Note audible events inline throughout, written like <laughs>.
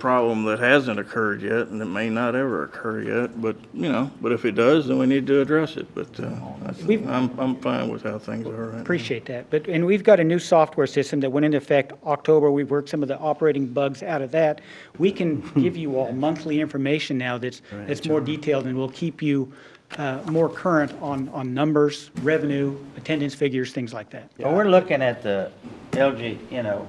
problem that hasn't occurred yet, and it may not ever occur yet, but, you know, but if it does, then we need to address it, but, uh, that's- We've- I'm, I'm fine with how things are right now. Appreciate that. But, and we've got a new software system that went into effect October. We've worked some of the operating bugs out of that. We <laughs> can give you all monthly information now that's, that's more detailed and will keep you uh, more current on, on numbers, revenue, attendance figures, things like that. But we're looking at the LG, you know,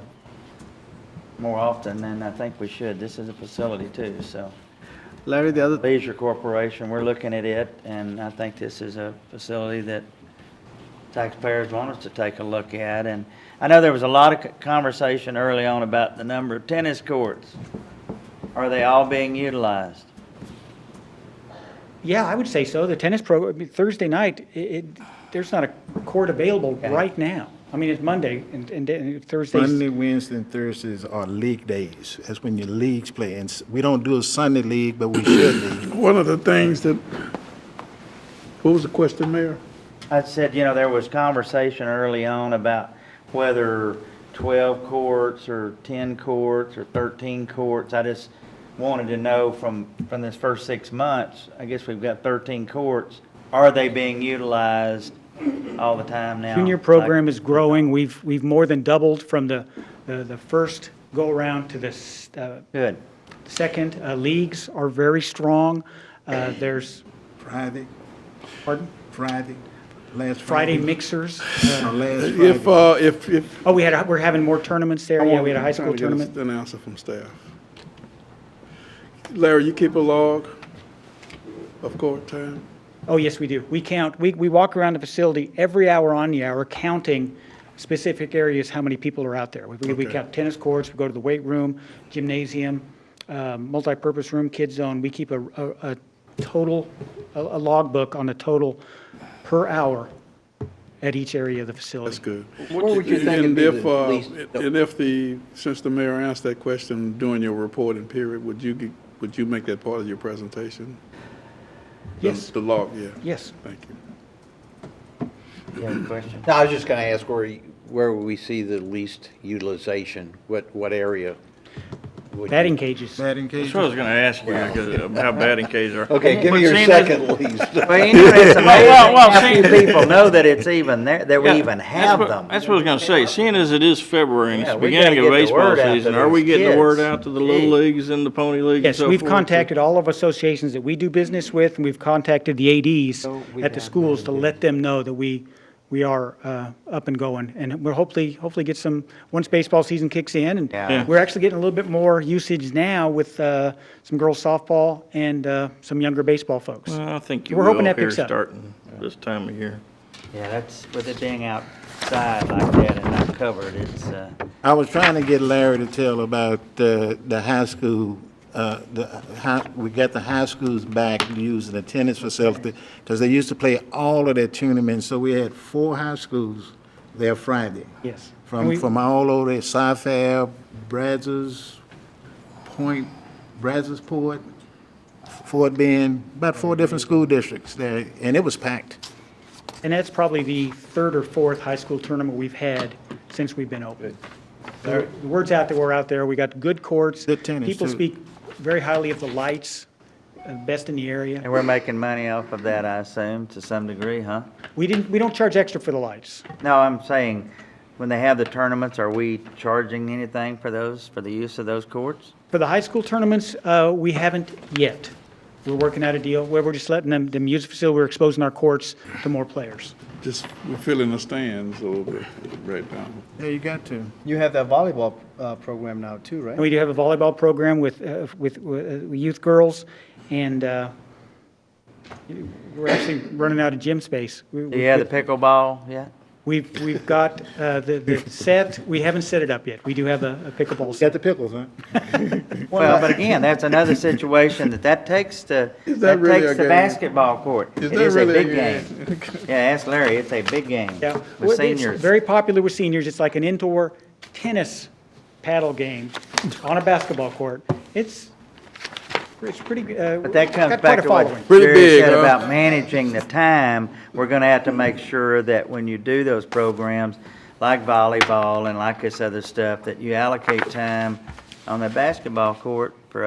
more often than I think we should. This is a facility too, so. Larry, the other, Leisure Corporation, we're looking at it, and I think this is a facility that taxpayers want us to take a look at. And I know there was a lot of c- conversation early on about the number of tennis courts. Are they all being utilized? Yeah, I would say so. The tennis program, Thursday night, i- it, there's not a court available Okay. right now. I mean, it's Monday and, and- and Monday, Thursday's, Wednesday, and Thursdays are league days. That's when your leagues play. And s- we don't do a Sunday league, but we should league. One of the things that, what was the question, Mayor? I said, you know, there was conversation early on about whether 12 courts or 10 courts or 13 courts. I just wanted to know from, from this first six months, I guess we've got 13 courts. Are they being utilized all the time now? junior program is growing. We've, we've more than doubled from the, the the first go-around to the s- uh, Good. Second, uh, leagues are very strong. Uh, There's, Friday, pardon, Friday, last Friday Friday. mixers. Uh, no, Last If, Friday. uh, if, if. Oh, we had, a- we're having more tournaments there. Oh, Yeah, we had a high I'm trying school to get tournament. An answer from staff. Larry, you keep a log of court time? Oh, yes, we do. We count, we, we walk around the facility every hour on the hour counting specific areas, how many people are out there. We, we count tennis courts, we go to the weight room, gymnasium, um, multipurpose room, kid zone. We keep a, a, a total, a, a logbook on the total per hour at each area of the facility. That's good. What would you think would And be if, the uh, least- And if the, since the mayor asked that question during your reporting period, would you, g- would you make that part of your presentation? The- Yes. The log, yeah. Yes. Thank you. You have a question? No, I was just going to ask where, y- where we see the least utilization, what, what area? would you- Batting cages. Batting That's what I cages. was gonna ask you, because, how bad in case are. Okay, give me Well, your seeing as- second least. Well, anyway, it's amazing well, well, how few see- people know that it's even there, that we Yeah, even that's have what- them. That's what I was gonna say, seeing as it is February and it's Yeah, the we gotta beginning of get the baseball word out to season, are those we getting the word kids. out to the little Gee. leagues and the pony league and Yes, so forth? we've contacted all of associations that we do business with, and we've contacted the ADs at the schools to let them know that we, we are uh, up and going. And we're hopefully, hopefully get some, once baseball season kicks in, Yeah. and we're actually getting a little bit more usage now with uh, some girls softball and uh, some younger baseball folks. Well, I think you We're will hoping that here picks up. starting this time of year. Yeah, that's, with it being outside like that and not covered, it's, uh, I was trying to get Larry to tell about uh, the high school, uh, the, hi- we got the high schools back using the tennis facility, because they used to play all of their tournaments, so we had four high schools there Friday. Yes. And From, we- from all over, Syfab, Brazos, Point, Brazosport, Fort Bend, about four different school districts there, and it was packed. And that's probably the third or fourth high school tournament we've had since we've been open. The the word's out that we're out there, we got good courts. Good tennis, People too. speak very highly of the lights, uh, best in the area. and we're making money off of that, I assume, to some degree, huh? We didn't, we don't charge extra for the lights. No, I'm saying, when they have the tournaments, are we charging anything for those, for the use of those courts? For the high school tournaments, uh, we haven't yet. We're working out a deal where we're just letting them, them use the facility, we're exposing our courts to more players. Just, we're filling the stands a little bit right now. Yeah, you got to. <laughs> You have that volleyball uh, program now too, And right? we do have a volleyball program with, uh, with uh, youth girls, and uh, we're actually running out of gym space. We- Do we- you have the pickleball yet? We've, we've got uh, the, the set, we haven't set it up yet. We do have a a pickleball Got set. the pickles, huh? Well, but again, that's another situation that that takes the, <laughs> Is that that really a takes the game? basketball court. Is It that is a really a big game? <laughs> game. Yeah, ask Larry, it's a big game Yeah. Well, with it's seniors. Very popular with seniors. It's like an indoor tennis paddle game on a basketball court. It's, it's pretty, uh. But that comes got quite back a to what following. Pretty Jerry big, said huh? about managing the time. We're gonna have to make sure that when you do those programs, like volleyball and like this other stuff, that you allocate time on the basketball court for